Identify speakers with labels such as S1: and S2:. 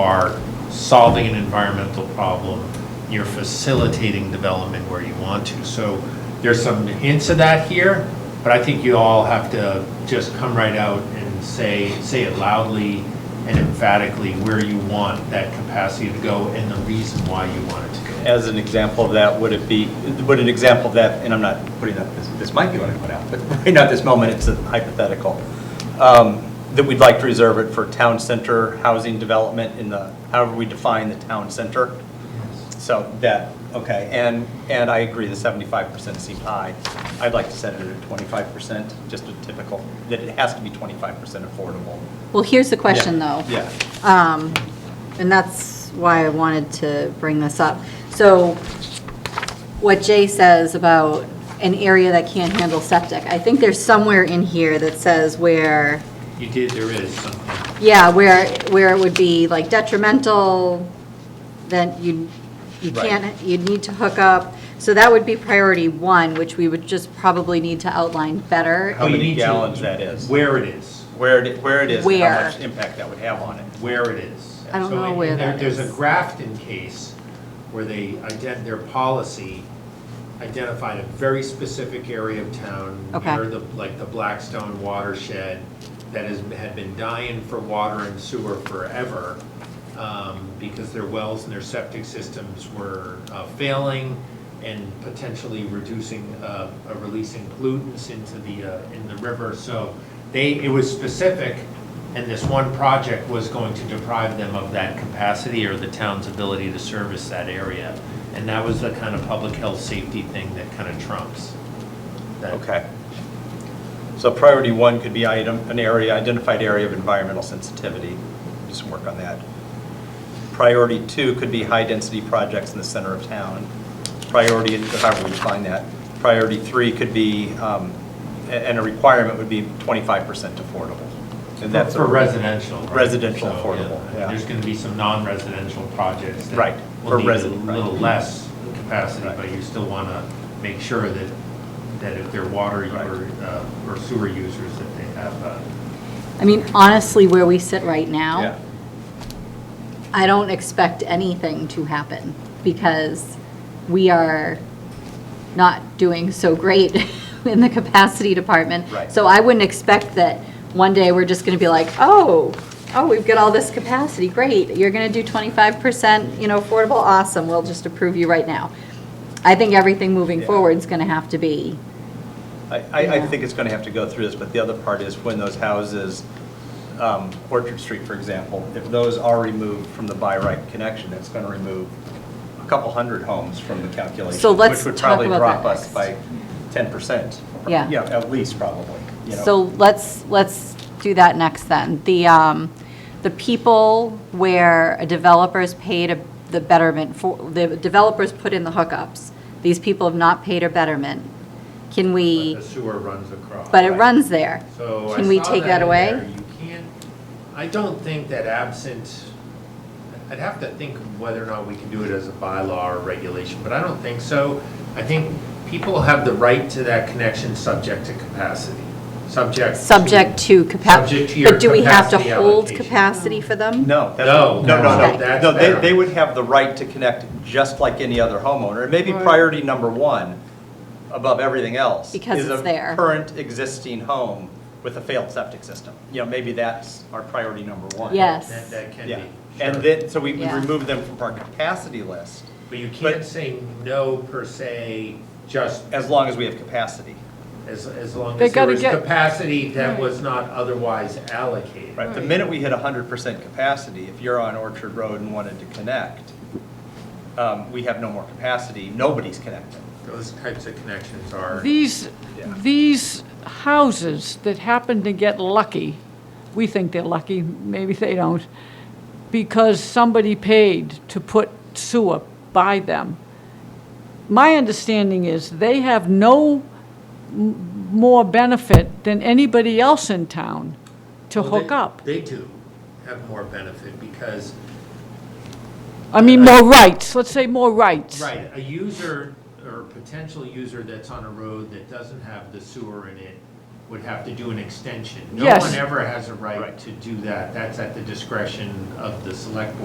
S1: solving an environmental problem, you're facilitating development where you want to. So there's some hints of that here, but I think you all have to just come right out and say, say it loudly and emphatically where you want that capacity to go and the reason why you want it to go.
S2: As an example of that, would it be, would an example of that, and I'm not putting up, this, this might be what I put out, but right now at this moment, it's a hypothetical, um, that we'd like to reserve it for town center housing development in the, however we define the town center. So that, okay, and, and I agree, the seventy-five percent seems high. I'd like to set it at twenty-five percent, just a typical, that it has to be twenty-five percent affordable.
S3: Well, here's the question,
S2: Yeah,
S3: though.
S2: Yeah.
S3: Um, And that's why I wanted to bring this up. So what Jay says about an area that can't handle septic, I think there's somewhere in here that says where,
S1: You did, there is something.
S3: yeah, where, where it would be like detrimental, then you, you
S2: Right.
S3: can't, you'd need to hook up. So that would be priority one, which we would just probably need to outline better.
S2: How
S1: Oh, You
S2: many
S1: need to-
S2: gallons that is.
S1: Where it is.
S2: where it, where it is, and how
S3: Where?
S2: much impact that would have on it.
S1: where it is.
S3: I don't
S1: So,
S3: know
S1: and
S3: where
S1: there-
S3: that
S1: There's
S3: is.
S1: a Grafton case where they, ident- their policy identified a very specific area of town.
S3: Okay.
S1: near the, like the Blackstone watershed that has, had been dying for water and sewer forever um, because their wells and their septic systems were uh, failing and potentially reducing, uh, uh, releasing pollutants into the, uh, in the river. So they, it was specific, and this one project was going to deprive them of that capacity or the town's ability to service that area. And that was the kind of public health safety thing that kind of trumps. that.
S2: Okay. So priority one could be item, an area, identified area of environmental sensitivity, do some work on that. Priority two could be high-density projects in the center of town. Priority, however we define that. Priority three could be, um, a- and a requirement would be 25% affordable. And that's,
S1: For
S2: a-
S1: residential, right?
S2: Residential
S1: So,
S2: affordable, yeah.
S1: There's going to be some non-residential projects that.
S2: Right, for
S1: Will need a
S2: resi- right.
S1: little less capacity,
S2: Right.
S1: but you still want to make sure that, that if they're water
S2: Right.
S1: or, uh, or sewer users, that they have, uh,
S3: I mean, honestly, where we sit right now.
S2: yeah,
S3: I don't expect anything to happen because we are not doing so great in the capacity department.
S2: Right.
S3: So I wouldn't expect that one day we're just going to be like, oh, oh, we've got all this capacity, great. You're going to do 25%, you know, affordable, awesome, we'll just approve you right now. I think everything moving
S2: Yeah.
S3: forward is going to have to be,
S2: I, I- I
S3: Yeah.
S2: think it's going to have to go through this, but the other part is when those houses, um, Orchard Street, for example, if those are removed from the by right connection, that's going to remove a couple hundred homes from the calculation.
S3: So let's
S2: Which would
S3: talk
S2: probably
S3: about
S2: drop
S3: that
S2: us
S3: next.
S2: by 10%.
S3: Yeah.
S2: Yeah, at least probably, you know.
S3: so let's, let's do that next then. The, um, the people where a developer's paid a- the betterment for, the developers put in the hookups, these people have not paid a betterment, can we,
S1: the sewer runs across.
S3: but it runs there.
S1: So I
S3: Can we
S1: saw
S3: take that
S1: in
S3: away?
S1: there. You can't, I don't think that absent, I'd have to think whether or not we can do it as a bylaw or regulation, but I don't think so. I think people have the right to that connection subject to capacity, subject. to-
S3: Subject
S1: Subject
S3: to
S1: to
S3: capacity,
S1: your
S3: but do we have to
S1: capacity
S3: hold
S1: allocation.
S3: capacity for them?
S2: No, that's,
S1: No,
S2: no, no,
S1: no,
S2: no.
S1: that's
S2: No, they,
S1: better.
S2: they would have the right to connect just like any other homeowner. And maybe priority number one, above everything else.
S3: Because
S2: is
S3: it's
S2: a
S3: there.
S2: Current existing home with a failed septic system. You know, maybe that's our priority number one.
S1: That,
S3: Yes,
S1: that can be.
S2: Yeah. And
S1: sure.
S2: then, so we we
S3: Yeah.
S2: remove them from our capacity list
S1: But you
S2: but-
S1: can't say no per se, just
S2: as long as we have capacity.
S1: as, as long
S3: They
S1: as there
S3: gotta
S1: was
S3: get-
S1: capacity that was not otherwise allocated.
S2: Right, the minute we hit hundred percent capacity, if you're on Orchard Road and wanted to connect, um, we have no more capacity, nobody's connecting.
S1: Those types of connections are.
S4: These,
S2: Yeah.
S4: these houses that happen to get lucky, we think they're lucky, maybe they don't, because somebody paid to put sewer by them. My understanding is they have no m- more benefit than anybody else in town to
S1: Well, they-
S4: hook up.
S1: They do have more benefit because,
S4: I mean, more rights, let's say more rights.
S1: right, a user or potential user that's on a road that doesn't have the sewer in it would have to do an extension. No
S4: Yes.
S1: one ever has a right to do that. That's at the discretion of the select board.